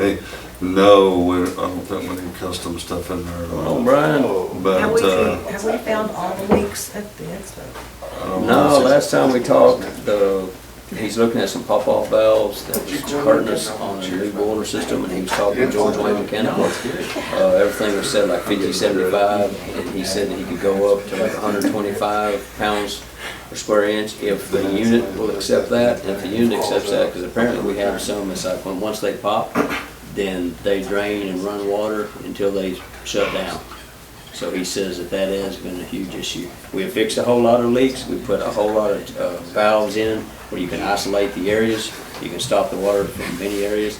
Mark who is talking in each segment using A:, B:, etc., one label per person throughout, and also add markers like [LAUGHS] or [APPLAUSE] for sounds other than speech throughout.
A: they, no, we're, I don't think we need custom stuff in there at
B: Oh,
A: all.
B: Brian,
C: Have
A: But,
C: we,
A: uh,
C: have we found all the leaks at the expo?
A: I don't
B: no,
A: know.
B: last time we talked, uh, he's looking at some pop-off valves that was hurting us on the new boiler system, and he was talking to George Wayne Mechanical. Uh, everything was set like fifty, seventy-five, and he said that he could go up to like hundred twenty-five pounds per square inch if the unit will accept that, and if the unit accepts that, because apparently we have some, it's like, when, once they pop, then they drain and run water until they shut down. So he says that that has been a huge issue. We have fixed a whole lot of leaks, we put a whole lot of uh, valves in where you can isolate the areas, you can stop the water from many areas.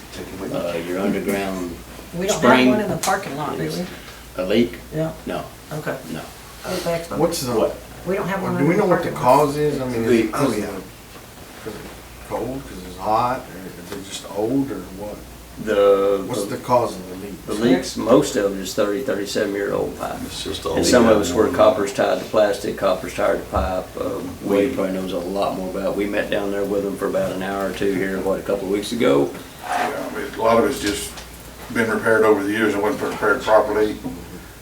B: Uh, Your underground
C: We don't have
B: Spring.
C: one in the parking lot, do we?
B: a leak,
C: Yeah,
B: no,
C: okay.
B: no.
C: At the expo.
D: What's the,
B: What?
C: We don't have one
D: do
C: in
D: we
C: the
D: know what the
C: parking lot.
D: cause is? I mean, is it because
E: oh,
D: of, the- 'cause it's cold, because it's hot, or is it just old, or what? What's the
B: The,
D: cause of the leak?
B: the leaks, most of it is thirty, thirty-seven-year-old pipe.
A: It's just all.
B: And some of us
A: the-
B: were coppers tied to plastic, coppers tied to pipe. Uh, Wade probably knows a lot more about. it. We met down there with him for about an hour or two here, what, a couple of weeks ago?
F: Yeah, I mean, A lot of it's just been repaired over the years, it wasn't prepared properly.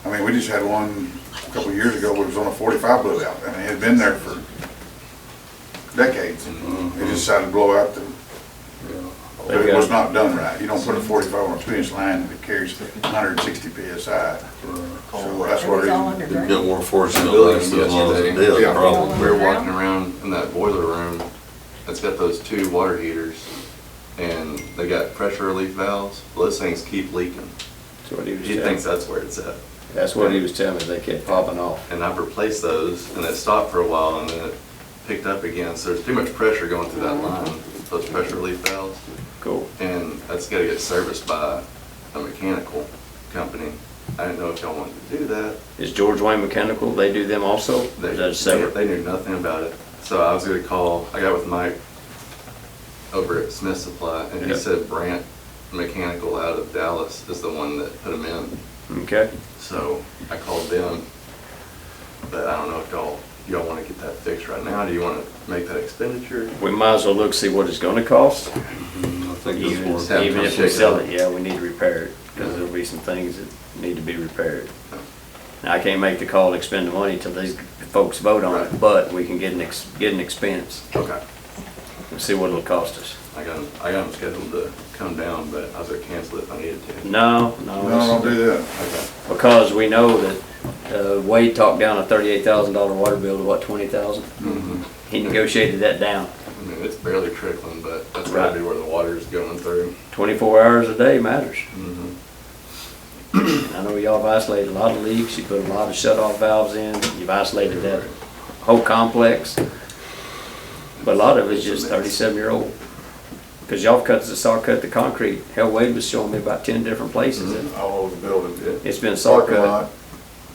F: I mean, we just had one a couple of years ago, where it was on a forty-five blew out, I mean, it had been there for decades. and
A: Mm,
F: It just decided to blow out, the- but it was not done right. You don't put a forty-five on a two-inch line that carries hundred and sixty PSI. So that's
C: It was all
F: where,
A: You'd
C: underground.
A: get more fortunate
G: Buildings
A: than ones that
G: yesterday.
A: did,
F: Yeah.
A: probably.
G: We were walking around in that boiler room that's got those two water heaters and they got pressure relief valves. Those things keep leaking.
B: That's what he was
G: He
B: telling
G: thinks
B: me.
G: that's where it's at.
B: That's what he was telling me, they kept popping off.
G: And I've replaced those and it stopped for a while and then it picked up again. So there's too much pressure going through that line, those pressure relief valves.
B: Cool.
G: And that's gotta get serviced by a mechanical company. I didn't know if y'all wanted to do that.
B: Is George Wayne Mechanical, they do them also? Or
G: They,
B: Is that separate?
G: they knew nothing about it. So I was gonna call, I got with Mike over at Smith Supply, and he
B: Yeah.
G: said Brant Mechanical out of Dallas is the one that put them in.
B: Okay.
G: So I called them, but I don't know if y'all, y'all wanna get that fixed right now? Do you wanna make that expenditure?
B: We might as well look, see what it's gonna cost.
A: I think
B: Even
A: it's
G: have
A: more.
B: even
G: them
B: if we
G: check
B: sell
G: it out.
B: it, yeah, we need to repair it, because there'll be some things that need to be repaired. Now, I can't make the call to expend the money till these folks vote on it,
G: Right.
B: but we can get an, ex- get an expense
G: Okay.
B: and see what it'll cost us.
G: I got, 'em- I got them scheduled to come down, but I was gonna cancel it if I needed to.
B: No, no.
F: no, don't do that.
G: Okay.
B: Because we know that uh, Wade talked down a thirty-eight thousand dollar water bill to what, twenty thousand?
G: Mhm.
B: He negotiated that down.
G: I mean, Mm-hmm. it's barely trickling, but that's gotta
B: Right.
G: be where the water's going through.
B: Twenty-four hours a day matters.
G: Mm-hmm.
B: And I know y'all have isolated a lot of leaks, you put a lot of shut-off valves in, you've isolated that whole complex. But a lot of it's just thirty-seven-year-old. Because y'all cut, the saw cut the concrete, hell, Wade was showing me about ten different places.
G: Mm-hmm.
B: that
F: All over the building.
B: It's been saw
F: Parking
B: cut,
F: lot,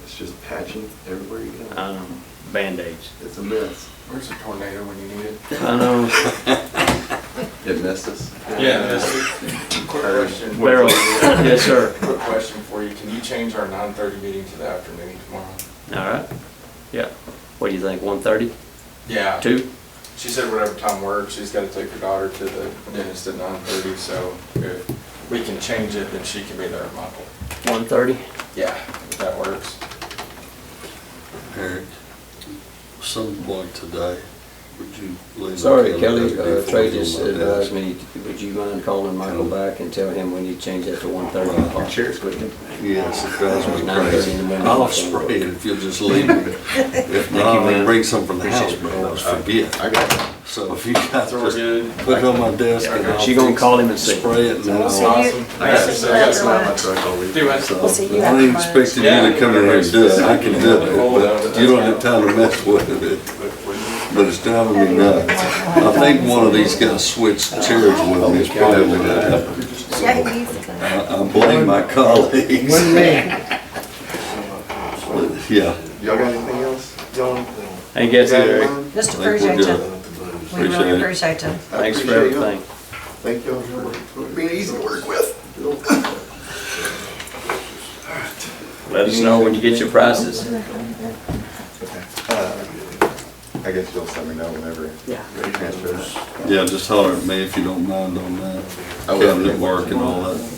G: It's just patching everywhere you go.
B: um, Band-Aids.
G: It's a mess.
D: Where's the tornado when you need it?
B: I know.
G: It messed us.
E: Yeah, quick question,
D: [LAUGHS]
B: Barrel, [COUGHS] yes, sir.
E: quick question for you. Can you change our nine thirty meeting to the afternoon tomorrow?
B: All right, yeah. What do you think, one thirty,
E: Yeah.
B: two?
E: She said whatever time works, she's gotta take her daughter to the dentist at nine thirty, so if we can change it, then she can be there at Michael.
B: One thirty?
E: Yeah, if that works.
A: Eric, some point today, would you? leave
B: Sorry,
A: the
B: Kelly,
A: calendar
B: uh,
A: before
B: Trey
A: we go
B: just
A: like that?
B: advised me, would you mind calling Michael back and tell him we need to change that to one thirty?
G: Cheers, Whitney.
A: Yes, it drives me
B: Nine thirty
A: crazy.
B: in the morning.
A: I'll spray it if you'll just leave
B: [LAUGHS]
A: me. If not,
B: you,
A: I'm gonna
B: man.
A: bring some from the house, but I always forget.
G: I got
A: So if you guys
E: So we're
A: just
E: good?
A: put it on my desk and I'll.
B: She gonna
A: fix
B: call
A: it,
B: him and see.
A: Spray it and then
C: So
A: I'll.
C: we'll see
E: Awesome.
C: you.
G: I got
E: So I got
G: my
E: some
G: truck all week.
E: Do it.
C: We'll see
A: So,
C: you
A: I ain't
C: after
A: expecting you to come in here and do it, I can do it, but you don't have time to mess with it. But it's driving me nuts. I think one of these guys switched chairs with me, it's probably what happened.
C: Yeah, he needs to come.
A: I I blame my colleagues.
D: One man.
A: Yeah,
G: Y'all got anything else? Y'all?
B: Hey, guess it, Eric.
C: Just
A: I think we're
C: appreciate
A: good.
C: you. We
A: Appreciate it.
C: really appreciate you.
B: Thanks for everything.
G: Thank y'all for being easy to work with.
B: Let us know when you get your prices.
G: I guess you'll let me know whenever.
B: Yeah.
G: Transfers.
A: yeah, just holler at me if you don't mind on that.
G: I will.
A: Cabinet work and all that.